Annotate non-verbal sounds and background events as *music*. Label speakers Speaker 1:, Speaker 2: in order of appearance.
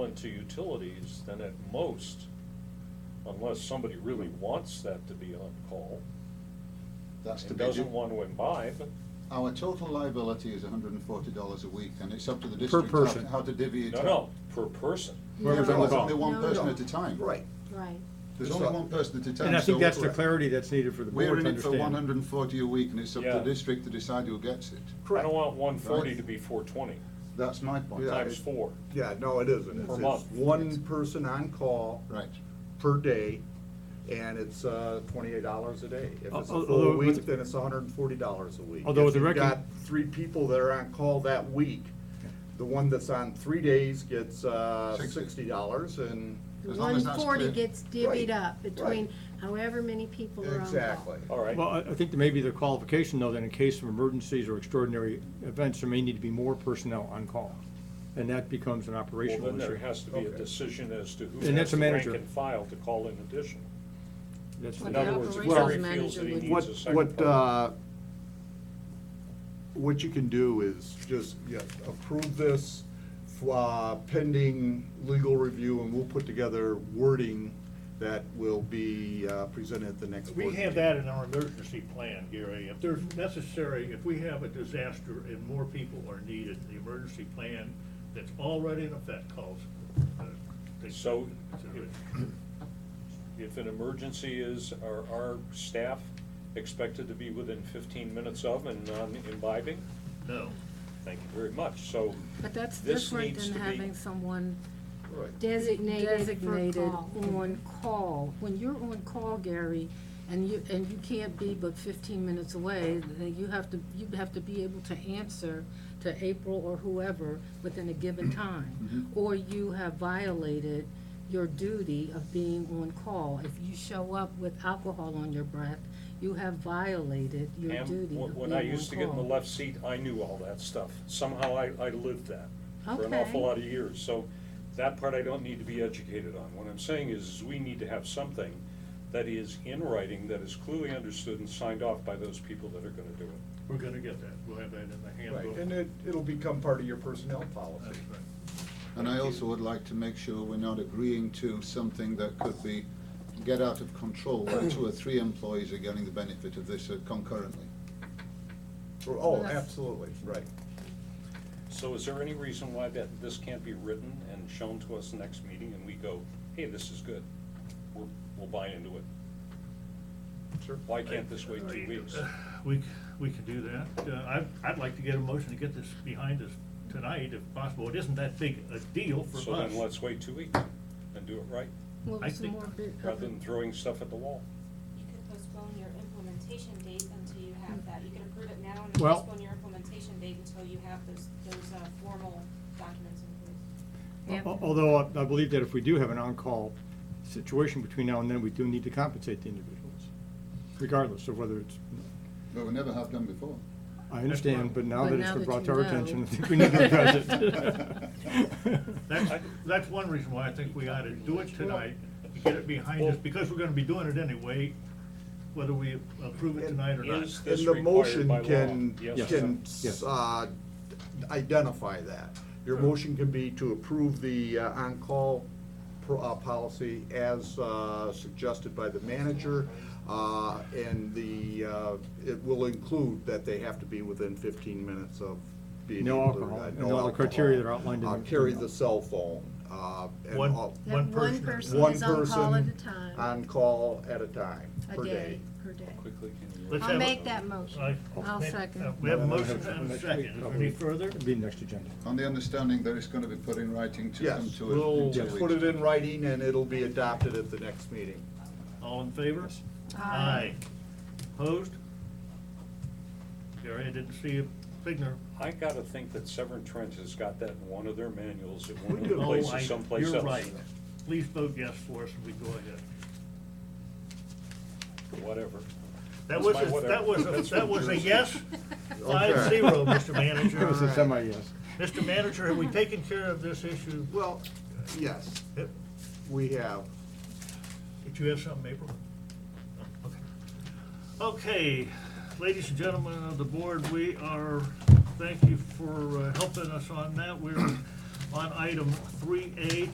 Speaker 1: went to utilities, then at most, unless somebody really wants that to be on call,
Speaker 2: That's to
Speaker 1: and
Speaker 2: be.
Speaker 1: doesn't want to imbibe,
Speaker 2: Our total liability is hundred and forty dollars a week, and it's up to the
Speaker 3: Per
Speaker 2: district how
Speaker 3: person.
Speaker 2: to- how to divvy it
Speaker 1: no,
Speaker 2: up.
Speaker 1: no, per person.
Speaker 3: We're gonna
Speaker 2: No,
Speaker 3: bring
Speaker 2: it's
Speaker 3: the
Speaker 2: only
Speaker 3: call.
Speaker 2: one
Speaker 4: No,
Speaker 2: person
Speaker 4: no.
Speaker 2: at a time.
Speaker 4: Right,
Speaker 5: Right.
Speaker 2: There's only one person at a time.
Speaker 3: And I think
Speaker 2: so
Speaker 3: that's the clarity that's needed for the
Speaker 2: We're
Speaker 3: board
Speaker 2: in
Speaker 3: to
Speaker 2: it for one
Speaker 3: understand.
Speaker 2: hundred and forty a week, and it's up to the
Speaker 1: Yeah.
Speaker 2: district to decide who gets it.
Speaker 1: I
Speaker 4: correct.
Speaker 1: don't want one forty
Speaker 2: Right.
Speaker 1: to be four twenty,
Speaker 2: That's my point.
Speaker 4: Yeah.
Speaker 1: times four.
Speaker 4: Yeah, no, it isn't. It's-
Speaker 1: Per
Speaker 4: It's
Speaker 1: month.
Speaker 4: one person on call
Speaker 2: Right.
Speaker 4: per day, and it's uh, twenty-eight dollars a day. If it's
Speaker 3: Al-
Speaker 4: a full
Speaker 3: although with-
Speaker 4: week, then it's hundred and forty dollars a week.
Speaker 3: Although
Speaker 4: If
Speaker 3: the
Speaker 4: you've
Speaker 3: recon-
Speaker 4: got Three people that are on call that week, the one that's on three days gets uh,
Speaker 2: Sixty.
Speaker 4: sixty dollars, and
Speaker 2: As long as
Speaker 5: One
Speaker 2: that's
Speaker 5: forty
Speaker 2: clear.
Speaker 5: gets divvied
Speaker 4: Right,
Speaker 5: up between
Speaker 4: right.
Speaker 5: however many people are on call.
Speaker 4: exactly.
Speaker 3: Oh,
Speaker 1: All right,
Speaker 3: Well, I, I think that maybe the qualification though, that in case of emergencies or extraordinary events, there may need to be more personnel on call. And that becomes an
Speaker 1: well,
Speaker 3: operational
Speaker 1: then there
Speaker 3: issue.
Speaker 1: has to be a
Speaker 4: Okay.
Speaker 1: decision as to who
Speaker 3: And
Speaker 1: has
Speaker 3: that's a
Speaker 1: the rank
Speaker 3: manager.
Speaker 1: and file to call in addition.
Speaker 3: That's
Speaker 5: Well,
Speaker 1: In
Speaker 5: the
Speaker 1: other words, if
Speaker 5: operations
Speaker 1: Terry feels
Speaker 5: manager
Speaker 1: that he
Speaker 5: would-
Speaker 1: needs
Speaker 4: What,
Speaker 1: a second
Speaker 4: what,
Speaker 1: person-
Speaker 4: uh, what you can do is just, yeah, approve this uh, pending legal review, and we'll put together wording that will be uh, presented at the next board
Speaker 6: We
Speaker 4: meeting.
Speaker 6: have that in our emergency plan, Gary. If there's necessary, if we have a disaster and more people are needed, the emergency plan that's already in effect calls. uh, takes
Speaker 1: So-
Speaker 6: consideration.
Speaker 1: If an emergency is, are our staff expected to be within fifteen minutes of and non-imbibing?
Speaker 6: No.
Speaker 1: Thank you very much. So
Speaker 7: But that's
Speaker 1: This
Speaker 7: different
Speaker 1: needs
Speaker 7: than
Speaker 1: to be-
Speaker 7: having someone
Speaker 5: Designated for
Speaker 7: designated
Speaker 5: call.
Speaker 7: on call. When you're on call, Gary, and you, and you can't be but fifteen minutes away, then you have to, you have to be able to answer to April or whoever within a given time. Or you have violated your duty of being on call. If you show up with alcohol on your breath, you have violated your
Speaker 1: Pam,
Speaker 7: duty
Speaker 1: when
Speaker 7: of
Speaker 1: when
Speaker 7: being
Speaker 1: I
Speaker 7: on
Speaker 1: used to get in the
Speaker 7: call.
Speaker 1: left seat, I knew all that stuff. Somehow I, I lived that for an
Speaker 7: Okay.
Speaker 1: awful lot of years. So that part I don't need to be educated on. What I'm saying is, is we need to have something that is in writing, that is clearly understood and signed off by those people that are gonna do it.
Speaker 6: We're gonna get that. We'll have that in the
Speaker 4: Right,
Speaker 6: handbook.
Speaker 4: and it, it'll become part of your personnel
Speaker 6: That's
Speaker 4: policy.
Speaker 6: right.
Speaker 2: And I also would like to make sure we're not agreeing to something that could be, get out of control, where two or three employees are getting the benefit of this uh, concurrently.
Speaker 4: Oh, absolutely, right.
Speaker 1: So is there any reason why that, this can't be written and shown to us next meeting and we go, hey, this is good? We're, we'll buy into it.
Speaker 4: Sure.
Speaker 1: Why can't this wait two
Speaker 6: Right. *laughs* Uh,
Speaker 1: weeks?
Speaker 6: We, we can do that. Uh, I'd, I'd like to get a motion to get this behind us tonight if possible. It isn't that big a deal for us.
Speaker 1: So then let's wait two weeks and do it right,
Speaker 7: Well,
Speaker 6: I
Speaker 7: it's
Speaker 6: think-
Speaker 7: more bit of a-
Speaker 1: rather than throwing stuff at the wall.
Speaker 8: You could postpone your implementation date until you have that. You could approve it now and
Speaker 3: Well-
Speaker 8: postpone your implementation date until you have those, those, uh, formal documents in place.
Speaker 7: Yeah.
Speaker 3: Al- Although I I believe that if we do have an on-call situation between now and then, we do need to compensate the individuals, regardless of whether it's,
Speaker 2: But we never have done before.
Speaker 3: I understand, but now that
Speaker 7: But
Speaker 3: it's
Speaker 7: now
Speaker 3: been
Speaker 7: that
Speaker 3: brought
Speaker 7: you
Speaker 3: to our
Speaker 7: know.
Speaker 3: attention, I think we need to *laughs*
Speaker 7: *laughs*
Speaker 3: address it.
Speaker 6: That's, that's one reason why I think we ought to do it tonight, to get it behind us, because we're gonna be doing it anyway, whether we approve it tonight or not.
Speaker 1: Is
Speaker 4: And
Speaker 1: this
Speaker 4: the
Speaker 1: required
Speaker 4: motion
Speaker 1: by law?
Speaker 4: can,
Speaker 1: Yes.
Speaker 4: can,
Speaker 3: Yes.
Speaker 4: uh, identify that. Your motion can be to approve the uh, on-call pro- uh, policy as uh, suggested by the manager. uh, And the, uh, it will include that they have to be within fifteen minutes of being.
Speaker 3: No
Speaker 4: able to-
Speaker 3: alcohol,
Speaker 4: uh,
Speaker 3: and
Speaker 4: no
Speaker 3: all the
Speaker 4: alcohol.
Speaker 3: criteria that are outlined in
Speaker 4: Uh,
Speaker 3: the-
Speaker 4: Carry the cell phone. uh, and
Speaker 6: One-
Speaker 4: all-
Speaker 5: That
Speaker 6: One person.
Speaker 5: one person
Speaker 4: one
Speaker 5: is on call at a
Speaker 4: person
Speaker 5: time.
Speaker 4: On call at a time, per
Speaker 5: A day, per day.
Speaker 1: Quickly, can you?
Speaker 6: Let's
Speaker 5: I'll
Speaker 6: have a-
Speaker 5: make that motion.
Speaker 6: I- ma-
Speaker 7: I'll second.
Speaker 6: uh, We have a motion and a second. Is there any further?
Speaker 3: It'd be next agenda.
Speaker 2: On the understanding that it's gonna be put in writing to come
Speaker 4: Yes,
Speaker 2: to us
Speaker 4: we'll
Speaker 2: in two
Speaker 4: put
Speaker 2: weeks.
Speaker 4: it in writing and it'll be adopted at the next meeting.
Speaker 6: All in favor? Aye. Opposed? Gary, I didn't see a signal.
Speaker 1: I gotta think that Severn Trent has got that in one of their manuals at one of the
Speaker 4: do.
Speaker 6: Oh, I-
Speaker 1: places someplace else.
Speaker 6: You're right. Please vote yes for us and we go ahead.
Speaker 1: Whatever.
Speaker 6: That
Speaker 1: That's
Speaker 6: was,
Speaker 1: my
Speaker 6: a-
Speaker 1: whatever.
Speaker 6: that was, a- that
Speaker 1: *laughs*
Speaker 6: was a yes,
Speaker 4: Okay.
Speaker 6: five zero, Mr. Manager.
Speaker 3: It was a semi-yes.
Speaker 6: Mr. Manager, have we taken care of this issue?
Speaker 4: Well, yes,
Speaker 6: Yep.
Speaker 4: we have.
Speaker 6: Did you have something, April? Oh, Okay, Okay, ladies and gentlemen of the board, we are, thank you for uh, helping us on that. We're on item three A,